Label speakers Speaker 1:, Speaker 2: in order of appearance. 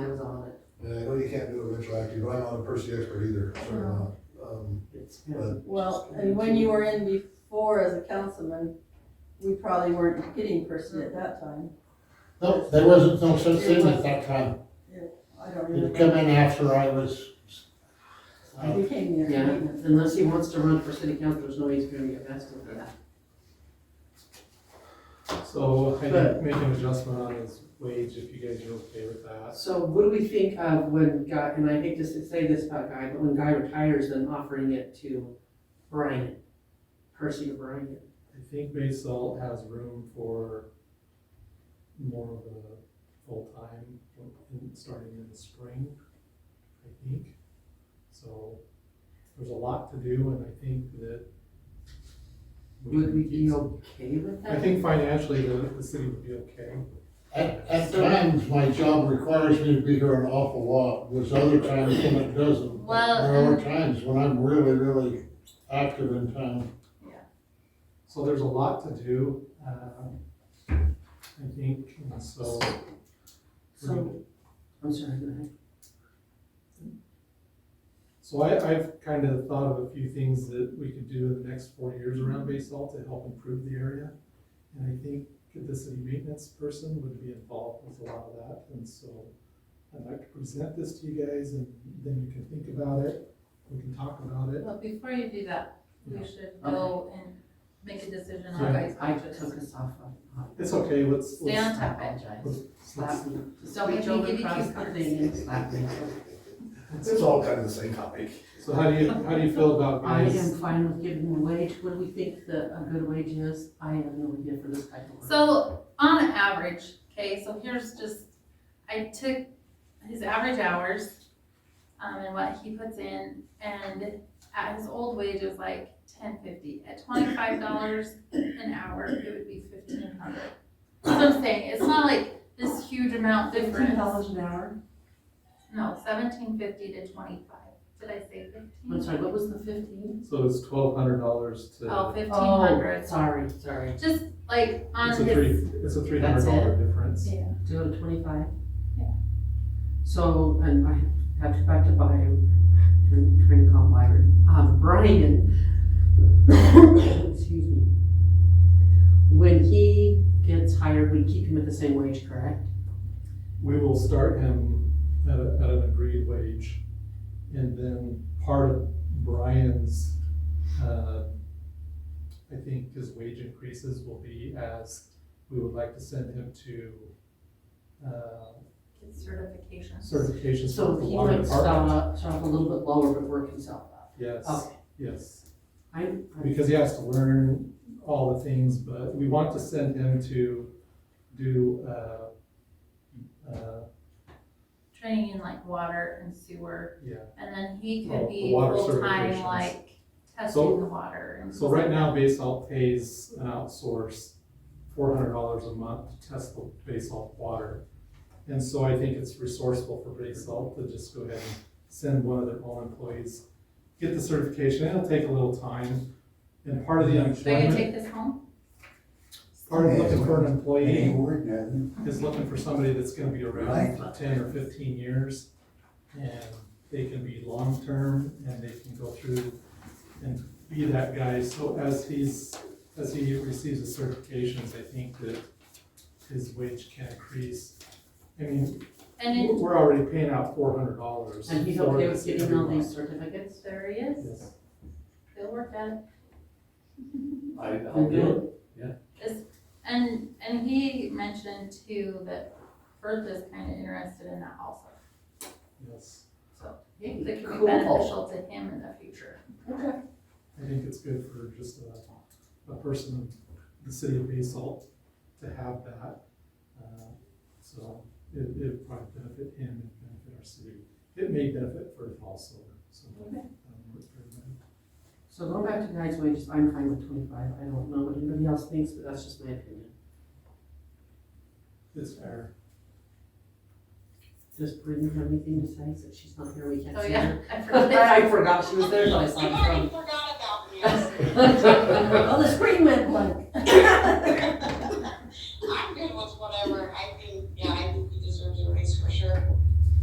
Speaker 1: Uh, perspective, I'm not a Percy expert either, so I'm not. Um,
Speaker 2: It's
Speaker 1: But-
Speaker 3: Well, and when you were in before as a councilman, we probably weren't getting Percy at that time.
Speaker 4: No, there wasn't no such thing at that time.
Speaker 3: I don't
Speaker 4: It come
Speaker 3: remember.
Speaker 4: in after I was. uh,
Speaker 3: I became their
Speaker 2: Yeah,
Speaker 3: maintenance.
Speaker 2: unless he wants to run for city council, there's no way he's gonna get vested in that.
Speaker 5: So I
Speaker 2: But-
Speaker 5: did make an adjustment on his wage, if you guys are okay with that.
Speaker 2: So what do we think of when Guy, and I hate to say this about Guy, but when Guy retires, then offering it to Brian, Percy or Brian?
Speaker 5: I think Bay Salt has room for more of a full-time, in- starting in the spring, I think. So there's a lot to do, and I think that. we
Speaker 2: Would
Speaker 5: can
Speaker 2: we
Speaker 5: keep
Speaker 2: be
Speaker 5: some-
Speaker 2: okay with that?
Speaker 5: I think financially, the, the city would be okay.
Speaker 4: At, at times, my job requires me to be here an awful lot, there's other times when it doesn't.
Speaker 6: Well,
Speaker 4: There are
Speaker 6: um,
Speaker 4: times when I'm really, really active in town.
Speaker 5: So there's a lot to do, um, I think, and so. we're gonna-
Speaker 2: So, I'm sorry, go ahead.
Speaker 5: So I, I've kind of thought of a few things that we could do in the next four years around basalt to help improve the area. And I think that the city maintenance person would be involved with a lot of that, and so I'd like to present this to you guys, and then you can think about it, we can talk about it.
Speaker 6: But before you do that, we
Speaker 5: Yeah.
Speaker 6: should go and make a decision
Speaker 5: Yeah.
Speaker 6: on guys'
Speaker 2: I
Speaker 6: budgets.
Speaker 2: took us off of. uh,
Speaker 5: It's okay, let's.
Speaker 6: Stay
Speaker 5: let's-
Speaker 6: on topic.
Speaker 2: Apologize.
Speaker 5: let's-
Speaker 2: Slap me.
Speaker 6: So we
Speaker 2: Reach
Speaker 6: can
Speaker 2: over
Speaker 6: give you
Speaker 2: across
Speaker 6: cue
Speaker 2: the
Speaker 6: cards.
Speaker 2: thing and slap me.
Speaker 1: It's all kind of the same topic.
Speaker 5: So how do you, how do you feel about
Speaker 2: I
Speaker 5: guys?
Speaker 2: am fine with giving the wage, what do we think the, a good wage is? I have no idea for this type of work.
Speaker 6: So on average, okay, so here's just, I took his average hours, um, and what he puts in, and at his old wage is like ten fifty. At twenty-five dollars an hour, it would be fifteen hundred. That's what I'm saying, it's not like this huge amount difference.
Speaker 2: an hour?
Speaker 6: No, seventeen fifty to twenty-five. Did I say
Speaker 2: I'm
Speaker 6: fifteen?
Speaker 2: sorry, what was the fifteen?
Speaker 5: So it's twelve hundred dollars to.
Speaker 6: Oh, fifteen hundred.
Speaker 2: Sorry, sorry,
Speaker 6: Just like on
Speaker 5: It's a
Speaker 6: his,
Speaker 5: three, it's a three hundred dollar difference.
Speaker 6: yeah.
Speaker 2: to go to twenty-five?
Speaker 6: Yeah.
Speaker 2: So, and I have to back to Byron, trying trying to call Byron, um, Brian. Excuse me. When he gets hired, we keep him at the same wage, correct?
Speaker 5: We will start him at, a- at an agreed wage. And then part of Brian's, uh, I think his wage increases will be as we would like to send him to, uh,
Speaker 6: His certifications.
Speaker 5: certifications
Speaker 2: So
Speaker 5: for the
Speaker 2: he
Speaker 5: water
Speaker 2: might start
Speaker 5: department.
Speaker 2: up, start up a little bit lower, but work himself up.
Speaker 5: Yes,
Speaker 2: Okay,
Speaker 5: yes,
Speaker 2: I'm, I'm,
Speaker 5: because he has to learn all the things, but we want to send him to do, uh, uh,
Speaker 6: Training in like water and sewer,
Speaker 5: yeah,
Speaker 6: and then he
Speaker 5: Well,
Speaker 6: could
Speaker 5: Oh, the
Speaker 6: be
Speaker 5: water
Speaker 6: full-time
Speaker 5: certifications.
Speaker 6: like
Speaker 5: So-
Speaker 6: testing the water. and
Speaker 5: So right now, Basalt pays an outsource four hundred dollars a month to test the Basalt water. And so I think it's resourceful for Basalt to just go ahead and send one of their own employees, get the certification, it'll take a little time. And part of the
Speaker 6: Are you gonna
Speaker 5: unemployment,
Speaker 6: take this home?
Speaker 5: part of looking for an employee
Speaker 1: worth nothing.
Speaker 5: is looking for somebody that's gonna be around for ten or fifteen years. And they can be long-term and they can go through and be that guy. So as he's, as he receives his certifications, I think that his wage can increase. I mean,
Speaker 6: And
Speaker 5: we're
Speaker 6: in
Speaker 5: we're already paying out four hundred dollars.
Speaker 2: and he's okay with getting all these certificates?
Speaker 6: serious,
Speaker 5: Yes,
Speaker 6: they'll work at it.
Speaker 7: I,
Speaker 2: You're good?
Speaker 6: And, and he mentioned too that Bertha's kinda interested in that also.
Speaker 5: yes.
Speaker 6: So
Speaker 2: Hey,
Speaker 6: it could be
Speaker 2: cool.
Speaker 6: beneficial to him in the future.
Speaker 2: Okay.
Speaker 5: I think it's good for just a, a person in the city of Basalt to have that. Uh, So it, it probably benefit him and benefit our city. It may benefit Firth also, so. um, work for everybody.
Speaker 2: So going back to guys' wages, I'm fine with twenty-five, I don't know what anybody else thinks, but that's just my opinion.
Speaker 5: It's fair.
Speaker 2: Does Brittany have anything to say, since she's not here, we can't
Speaker 6: Oh,
Speaker 2: say
Speaker 6: yeah,
Speaker 2: her?
Speaker 6: I forgot.
Speaker 2: I forgot she was there, so I
Speaker 8: I
Speaker 2: stopped
Speaker 8: already forgot about this.
Speaker 2: from. Well, the